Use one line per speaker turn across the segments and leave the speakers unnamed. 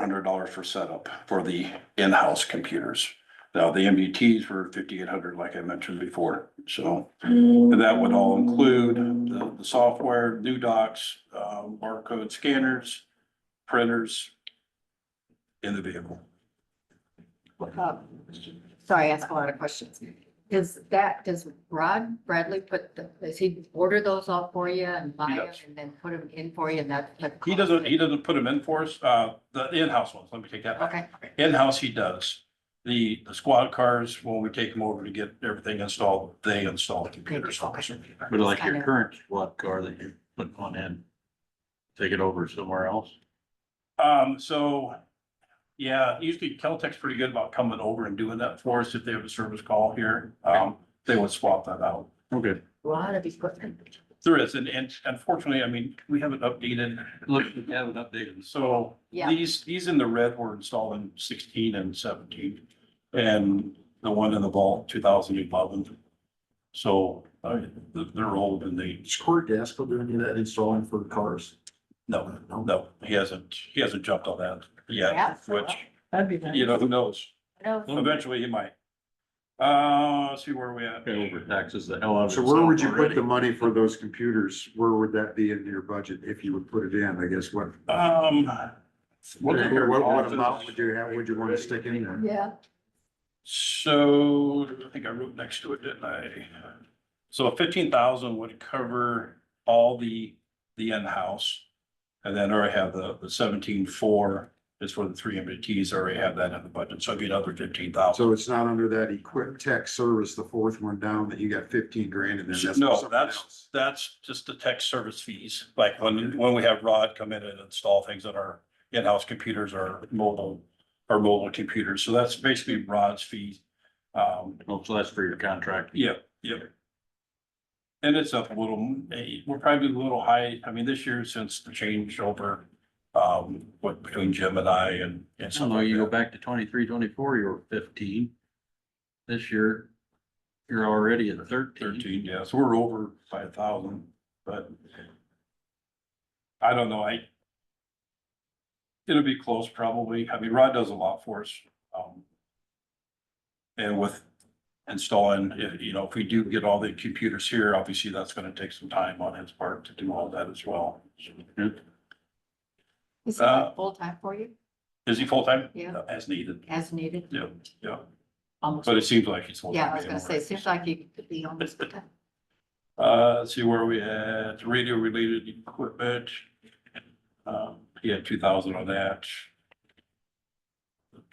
hundred dollars for setup for the in-house computers. Now, the MBTs were fifty-eight hundred, like I mentioned before, so that would all include the, the software, new docs, uh, barcode scanners, printers in the vehicle.
Uh, Sorry, I ask a lot of questions. Is that, does Rod Bradley put, the- does he order those all for you and buy
He
them
does.
and then put them in for you and that? that
He
costs
doesn't, he
it?
doesn't put them in for us, uh, the in-house ones, let me take that back.
Okay,
In-house he does. The, the squad cars, when we take them over to get everything installed, they install the computers. for us.
But like
Kind
your
of.
current squad car that you put one in, take it over somewhere else.
Um, so, yeah, usually Caltech's pretty good about coming over and doing that for us if they have a service call here. Um, they would swap that out.
Okay.
a lot of equipment.
There is, and, and unfortunately, I mean, we haven't updated,
Look, we haven't updated.
so
Yeah.
these, these in the red were installed in sixteen and seventeen. And the one in the vault, two thousand eleven. So, uh, they're old and they,
Is Cory Gaskell doing any of that installing for cars?
no, no, he hasn't, he hasn't jumped on that
Yeah.
yet, which,
That'd be nice.
you know, who knows?
No,
Eventually he might. Uh, let's see where we at.
Pay over taxes the hell out of.
So where would you
itself
put the money for those computers? Where would that be into your budget if you would put it in, I guess, what?
Um.
What, what amount would
office?
you have, would you want to stick in there?
Yeah,
So I think I wrote next to it, didn't I? So fifteen thousand would cover all the, the in-house. And then I already have the, the seventeen four is for the three MBTs, I already have that in the budget, so it'd be another fifteen thousand.
So it's not under that equip tech service, the fourth one down, that you got fifteen grand in there. that's
No,
something
that's-
else.
That's just the tech service fees, like when, when we have Rod come in and install things on our in-house computers or mobile, our mobile computers, so that's basically Rod's fees. Um,
Well, so that's for your contract.
Yeah, yeah. And it's up a little, eh, we're probably a little high, I mean, this year since the changeover, um, what between Jim and I and. and
I don't
some
know,
of
you go
that.
back to twenty-three, twenty-four, you were fifteen. This year, you're already at thirteen.
Thirteen, yeah, so we're over five thousand, but. I don't know, I. It'll be close probably, I mean, Rod does a lot for us, um. And with installing, if, you know, if we do get all the computers here, obviously that's gonna take some time on his part to do all that as well.
is he
Uh,
full time for you
Is he full-time?
Yeah.
No, As needed,
as needed?
yeah, yeah,
Almost,
but it seems like he's full-time.
yeah, I was gonna say, seems like he could be almost full time.
Uh, let's see where we at, radio related equipment. Um, he had two thousand on that.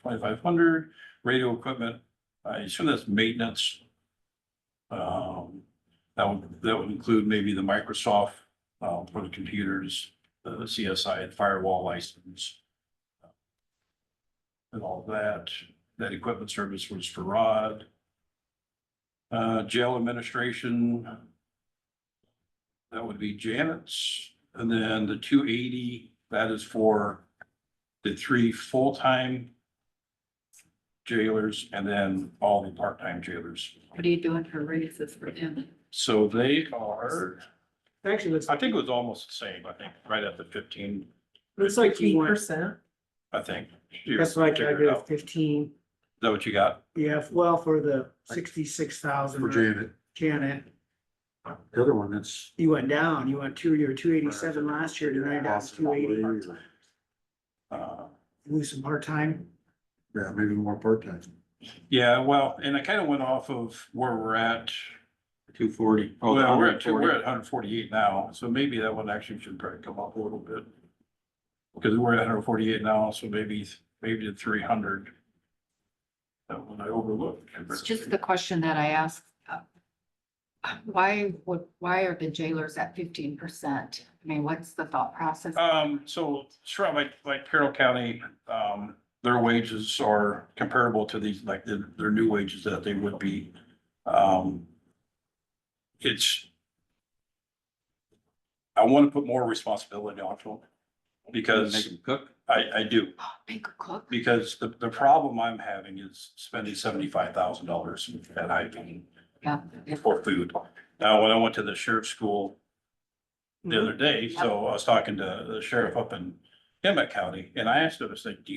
Twenty-five hundred, radio equipment, I assume that's maintenance. Um, that would, that would include maybe the Microsoft, uh, for the computers, the CSI and firewall license. And all that, that equipment service was for Rod. Uh, jail administration, that would be Janet's, and then the two eighty, that is for the three full-time jailers and then all the part-time jailers.
What are you doing for raises for him?
So they are,
Actually, it's,
I think it was almost the same, I think, right at the fifteen,
it's like eight percent.
I think.
That's what I
Figure it out.
calculated,
Is
fifteen.
that what you got?
Yeah, well, for the sixty-six thousand.
For Janet,
Janet,
the other one, that's.
you went down, you went two, you were two eighty-seven last year, tonight down to two eighty.
Uh,
Lose some part-time.
Yeah, maybe more part-time.
yeah, well, and I kind of went off of where we're at.
Two forty. Oh,
Well, we're at, two- we're at Oh, hundred forty-eight now, so maybe that one actually should probably come up a little bit. Because we're at hundred forty-eight now, so maybe, maybe to three hundred. That one I overlooked.
It's just the question that I asked. uh, Why would, why are the jailers at fifteen percent? I mean, what's the thought process?
Um, so, sure, like, like Carroll County, um, their wages are comparable to these, like, the- their new wages that they would be. Um, it's. I want to put more responsibility onto them.
Make
Because
them cook.
I, I do,
Make a cook?
because the, the problem I'm having is spending seventy-five thousand dollars at IP
Yeah.
for food. Now, when I went to the sheriff's school,
Mm-hmm.
the other day, so I was talking to the sheriff up in Emmett County, and I asked him, I said, do you